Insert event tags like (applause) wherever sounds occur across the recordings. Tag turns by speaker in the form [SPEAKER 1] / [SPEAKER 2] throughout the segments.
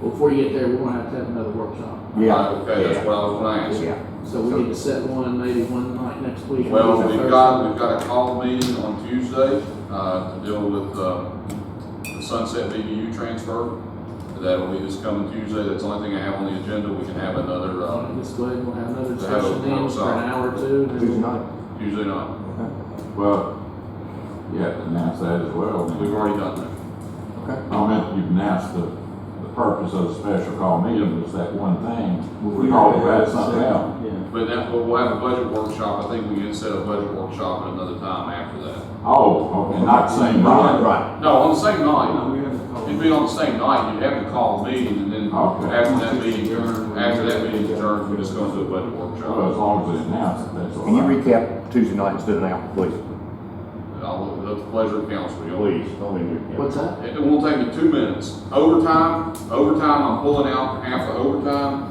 [SPEAKER 1] Before you get there, we're gonna have to have another workshop.
[SPEAKER 2] Yeah.
[SPEAKER 3] Okay, that's what I was gonna ask.
[SPEAKER 2] Yeah,
[SPEAKER 1] So we need to set one, maybe one night next week.
[SPEAKER 3] Well, we've got, we've got a call meeting on Tuesday, uh, to deal with, uh, the Sunset BDU transfer. That'll be this coming Tuesday, that's the only thing I have on the agenda, we can have another, uh,
[SPEAKER 1] Just go ahead and we'll have another
[SPEAKER 3] Have a
[SPEAKER 1] discussion then for
[SPEAKER 3] workshop.
[SPEAKER 1] an hour or two. and then
[SPEAKER 2] Tuesday
[SPEAKER 1] we'll-
[SPEAKER 2] night.
[SPEAKER 3] Tuesday night.
[SPEAKER 4] Well, you have to announce that as well.
[SPEAKER 3] We've already done
[SPEAKER 2] Okay.
[SPEAKER 4] I meant you've announced the, the purpose of the special call meeting was that one thing. We
[SPEAKER 5] all
[SPEAKER 4] talked about something else.
[SPEAKER 5] Yeah.
[SPEAKER 3] that. But that, we'll we'll have a budget workshop, I think we can set a budget workshop at another time after that.
[SPEAKER 4] Oh, okay, not the same
[SPEAKER 2] Right,
[SPEAKER 4] night.
[SPEAKER 2] right.
[SPEAKER 3] No, on the same
[SPEAKER 5] No,
[SPEAKER 3] night,
[SPEAKER 5] we have to call.
[SPEAKER 3] it'd be on the same night, you'd have to call a meeting, and then
[SPEAKER 4] Okay.
[SPEAKER 3] after that meeting, after that meeting's adjourned, we're just gonna do a budget
[SPEAKER 4] Well, as
[SPEAKER 3] workshop.
[SPEAKER 4] long as they announce it, that's all
[SPEAKER 2] Can you
[SPEAKER 4] right.
[SPEAKER 2] recap Tuesday night instead of now, please?
[SPEAKER 3] I'll, that's the pleasure of council, y'all.
[SPEAKER 2] don't even
[SPEAKER 1] What's that?
[SPEAKER 3] It it won't take me two minutes. Overtime, overtime, I'm pulling out half of overtime.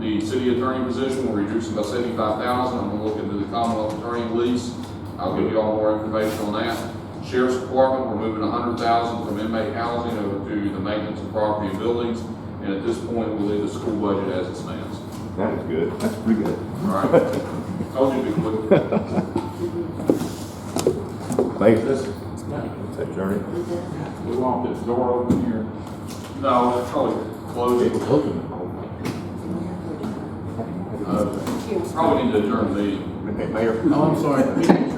[SPEAKER 3] The city attorney position, we're reducing by seventy-five thousand. I'm gonna look into the Commonwealth attorney lease. I'll give you all more information on that. Sheriff's Department, we're moving a hundred thousand from inmate housing over to the maintenance of property and buildings. And at this point, we'll leave the school budget as it stands.
[SPEAKER 2] That was good. That's pretty good.
[SPEAKER 3] All right?
[SPEAKER 4] (laughs)
[SPEAKER 3] Told you to be quick.
[SPEAKER 2] Thanks.
[SPEAKER 1] Yeah.
[SPEAKER 2] That's Ernie.
[SPEAKER 4] We want this door open here.
[SPEAKER 3] No, it's probably closed. Uh, Probably need to adjourn the meeting.
[SPEAKER 2] Okay, Mayor.
[SPEAKER 1] (laughs) Oh, I'm sorry.